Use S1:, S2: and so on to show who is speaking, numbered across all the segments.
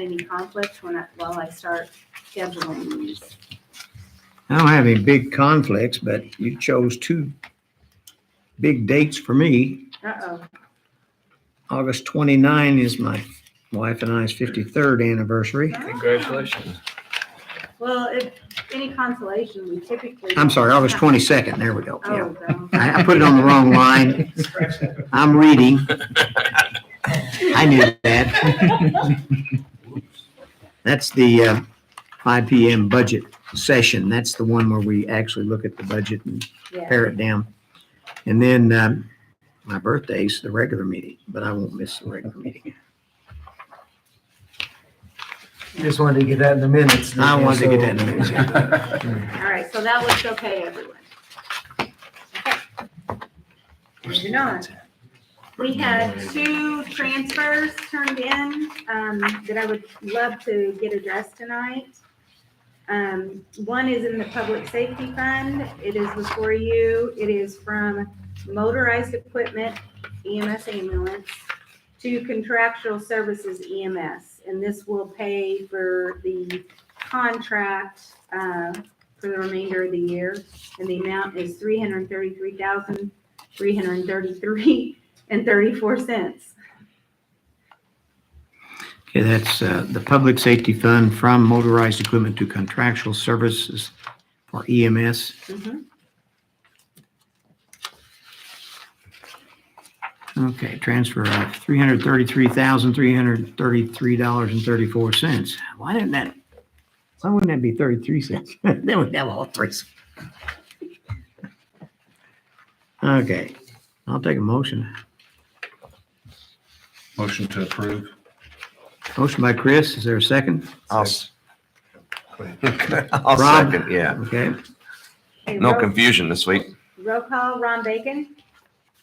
S1: any conflicts when I, while I start scheduling these.
S2: I don't have any big conflicts, but you chose two big dates for me.
S1: Uh-oh,
S2: August 29 is my wife and I's 53rd anniversary.
S3: Congratulations.
S1: well, if, any consolation, we typically.
S2: I'm sorry, August 22nd, there we go. Yeah.
S1: Oh, no.
S2: I, I put it on the wrong line. I'm reading. I knew that. That's the uh, 5 PM budget session. That's the one where we actually look at the budget and
S1: Yeah,
S2: pare it down. And then um, my birthday's the regular meeting, but I won't miss the regular meeting.
S4: Just wanted to get that in the minutes.
S2: I wanted to get that in the minutes, yeah.
S1: all right, so that looks okay, everyone. Okay. Moving on. We had two transfers turned in, um, that I would love to get addressed tonight. Um, one is in the public safety fund. It is before you. It is from motorized equipment EMS ambulance to contractual services EMS. And this will pay for the contract, uh, for the remainder of the year. And the amount is three hundred thirty-three thousand, three hundred thirty-three and thirty-four cents.
S2: Okay, that's uh, the Public Safety Fund from motorized equipment to contractual services for E EMS. Okay, transfer of $333,333.34. Why didn't that, why wouldn't that be 33 cents? Then we'd have all three. Okay, I'll take a motion.
S3: Motion to approve.
S2: Motion by Chris, is there a second?
S5: I'll, s- I'll
S2: Rob?
S5: second, yeah.
S2: Okay,
S1: Okay,
S5: No
S1: roll-
S5: confusion this week.
S1: Roll call, Ron Bacon.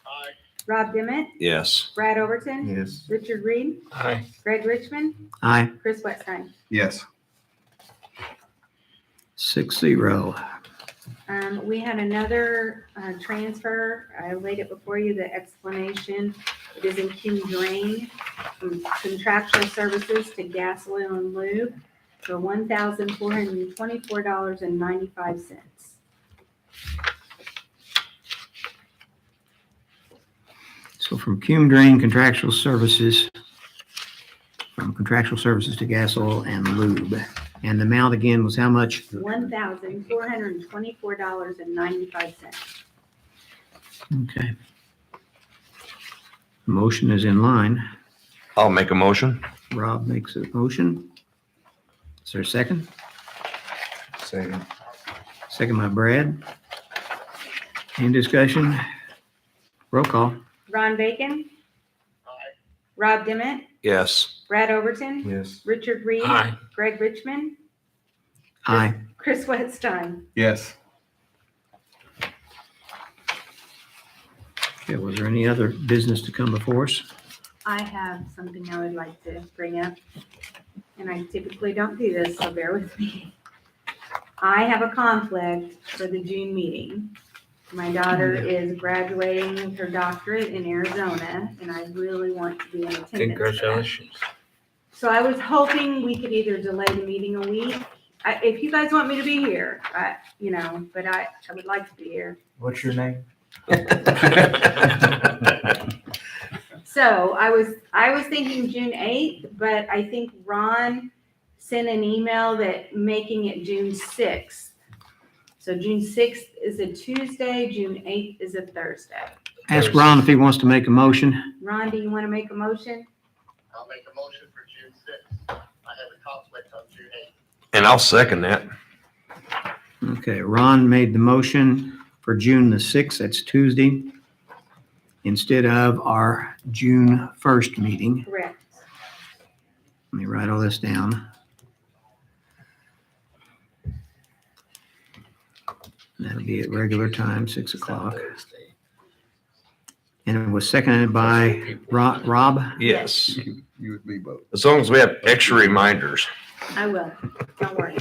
S1: Aye. Rob Dimmitt,
S5: Yes.
S1: Brad Overton,
S3: Yes.
S1: Richard Reed,
S3: Aye.
S1: Greg Richmond,
S2: aye,
S1: Chris Wetstein.
S3: Yes.
S2: six zero.
S1: Um, we had another, uh, transfer. I laid it before you, the explanation. It is in Q Drain, from contractual services to gas, oil, and lube for one thousand four hundred and twenty-four dollars and ninety-five cents.
S2: So from Cume Drain Contractual Services, from contractual services to gas, oil, and lube. And the amount again was how much?
S1: One thousand four hundred and twenty-four dollars and ninety-five cents.
S2: Okay. Motion is in line.
S5: I'll make a motion.
S2: Rob makes a motion. Is there a second?
S3: Second.
S2: Second by Brad. Any discussion? Roll call.
S1: Ron Bacon. Rob Dimmitt,
S5: Yes.
S1: Brad Overton,
S3: Yes.
S1: Richard Reed, Greg Richmond,
S2: Aye.
S1: Chris Wetstein.
S3: Yes.
S2: Okay, was there any other business to come before us?
S1: I have something I would like to bring up, and I typically don't do this, so bear with me. I have a conflict for the June meeting. My daughter is graduating with her doctorate in Arizona, and I really want to be in attendance. for that.
S3: Congratulations.
S1: So I was hoping we could either delay the meeting a week. I, if you guys want me to be here, I, you know, but I, I would like to be here.
S4: What's your name?
S1: So I was, I was thinking June eighth, but I think Ron sent an email that making it June sixth. So June sixth is a Tuesday, June eighth is a Thursday.
S2: Ask Ron if he wants to make a motion.
S1: Ron, do you want to make a motion?
S6: I'll make a motion for June sixth. I have a conflict on June eighth.
S5: And I'll second that.
S2: Okay, Ron made the motion for June the 6th, that's Tuesday, instead of our June 1st meeting.
S1: Correct.
S2: Let me write all this down. That'll be at regular time, 6 o'clock. And it was seconded by Ro- Rob.
S5: Yes.
S3: You would be both.
S5: As long as we have extra reminders.
S1: I will. Don't worry.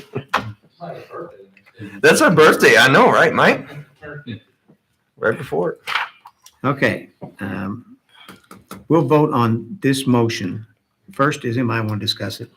S5: That's our birthday. I know, right, Mike? Right before. it.
S2: Okay. um, We'll vote on this motion. First, does anybody want to discuss it?